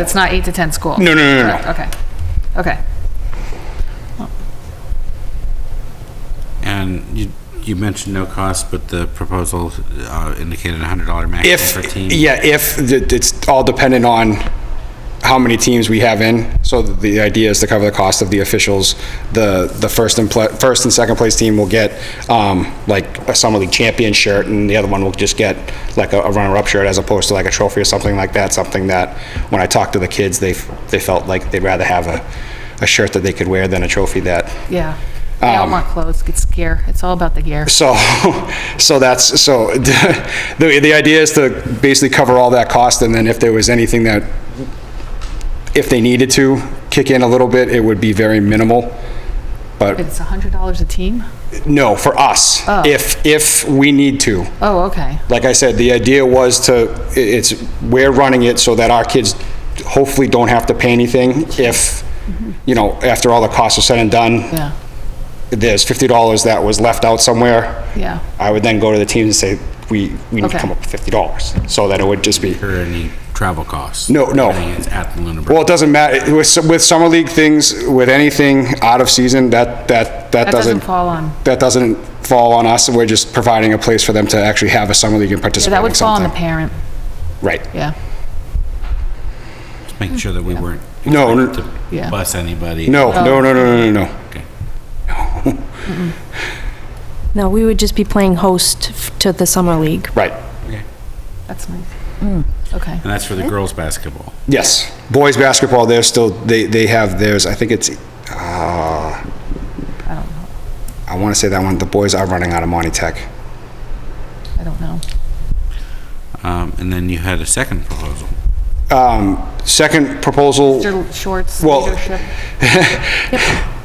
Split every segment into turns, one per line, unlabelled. It's not eight to 10 school?
No, no, no, no, no.
Okay, okay.
And you, you mentioned no cost, but the proposal uh, indicated a hundred dollar maximum
If,
for a team.
yeah, if, th- it's all dependent on how many teams we have in. So the idea is to cover the cost of the officials. The, the first and, pla- first and second place team will get, um, like a summer league champion shirt and the other one will just get like a a runner-up shirt as opposed to like a trophy or something like that. Something that, when I talked to the kids, they, f- they felt like they'd rather have a, a shirt that they could wear than a trophy that
Yeah. They
Um,
all want clothes, it's gear, it's all about the gear.
So, so that's, so the, the idea is to basically cover all that cost and then if there was anything that, if they needed to kick in a little bit, it would be very minimal. But
It's $100 a team?
no, for us, if, if we need to.
Oh, okay,
Like I said, the idea was to, i- it's, we're running it so that our kids hopefully don't have to pay anything if, you know, after all the costs are said and done,
yeah,
there's fifty dollars that was left out somewhere.
yeah,
I would then go to the teams and say, we, we need to
Okay.
come up with fifty dollars, so that it would just be,
Or any travel costs.
No, no.
Everything is at the Lunenburg.
well, it doesn't matter, with, s- with summer league things, with anything out of season, that, that, that
That doesn't
doesn't.
fall on-
That doesn't fall on us, we're just providing a place for them to actually have a summer league and
Yeah,
participate
that
in
would fall on the
something.
parent,
Right,
yeah,
Just making sure that we weren't.
No, no.
expected to
Yeah.
Bus anybody.
no,
Oh.
no, no, no, no, no, no.
No, we would just be playing host f- to the summer league.
right,
Okay.
that's nice. Hmm, Okay,
And that's for the girls' basketball.
yes. Boys basketball, they're still, they, they have theirs, I think it's, uh,
I don't know,
I wanna say that one, the boys are running out of Monty Tech.
I don't know.
Um, and then you had a second proposal.
Um, second proposal.
Mr. Short's
Well-
leadership,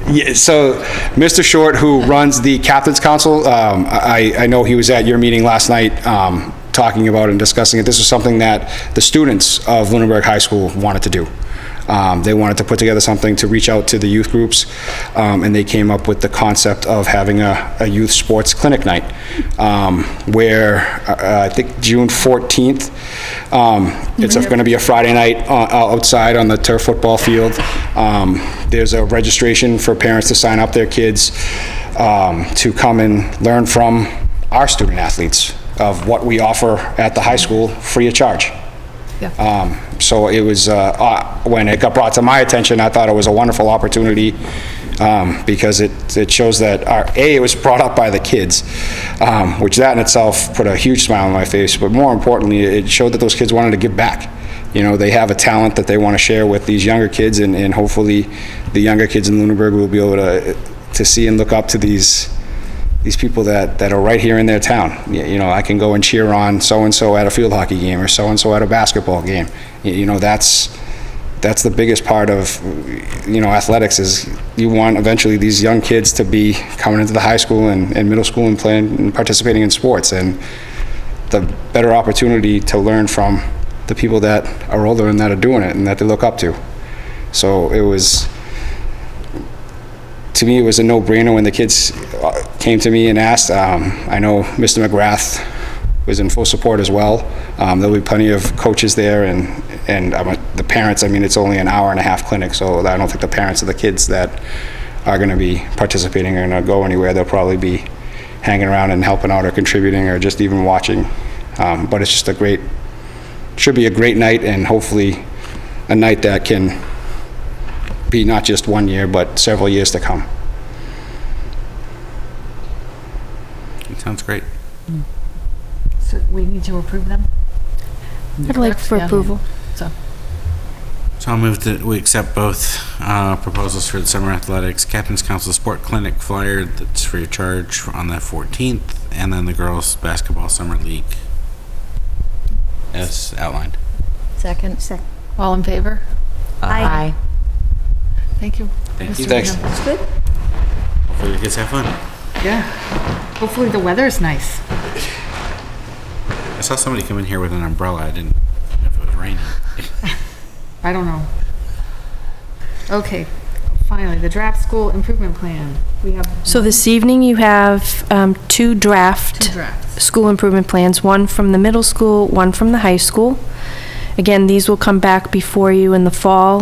Yeah, so Mr. Short, who runs the Captain's Council, um, I, I know he was at your meeting last night, um, talking about and discussing it. This is something that the students of Lunenburg High School wanted to do. Um, they wanted to put together something to reach out to the youth groups, um, and they came up with the concept of having a, a youth sports clinic night, um, where, uh, I think June 14th, um, it's going to be a Friday night o- outside on the turf football field. Um, There's a registration for parents to sign up their kids um, to come and learn from our student athletes of what we offer at the high school free of charge.
yeah,
Um, So it was, uh, uh, when it got brought to my attention, I thought it was a wonderful opportunity um, because it, it shows that, our- A, it was brought up by the kids, um, which that in itself put a huge smile on my face, but more importantly, it showed that those kids wanted to give back. You know, they have a talent that they want to share with these younger kids and, and hopefully the younger kids in Lunenburg will be able to, to see and look up to these, these people that, that are right here in their town. Y- You know, I can go and cheer on so-and-so at a field hockey game or so-and-so at a basketball game. Y- You know, that's, that's the biggest part of, you know, athletics is you want eventually these young kids to be coming into the high school and, and middle school and playing and participating in sports. And the better opportunity to learn from the people that are older and that are doing it and that they look up to. So it was, to me, it was a no-brainer when the kids uh, came to me and asked. Um, I know Mr. McGrath was in full support as well. Um, There'll be plenty of coaches there, and, and I'm a- the parents, I mean, it's only an hour and a half clinic, so I don't think the parents of the kids that are going to be participating are going to go anywhere. They'll probably be hanging around and helping out or contributing or just even watching. Um, But it's just a great, should be a great night, and hopefully a night that can be not just one year, but several years to come.
It sounds great.
so we need to approve them?
I'd like for
Yeah.
approval.
So,
So I'll move that we accept both uh, proposals for the summer athletics, Captain's Council Sport Clinic flyer that's free of charge on the 14th, and then the girls' basketball summer league as outlined.
Second. Second.
all in favor?
Aye.
Thank you.
Thank you.
Mr.
Thanks.
Hill.
It's good.
Hopefully, you guys have fun.
Yeah. Hopefully the weather is nice.
I saw somebody come in here with an umbrella. I didn't know if it was raining.
I don't know. Okay, finally, the draft school improvement plan. We have
So this evening, you have um, two draft
two drafts.
school improvement plans, one from the middle school, one from the high school. Again, these will come back before you in the fall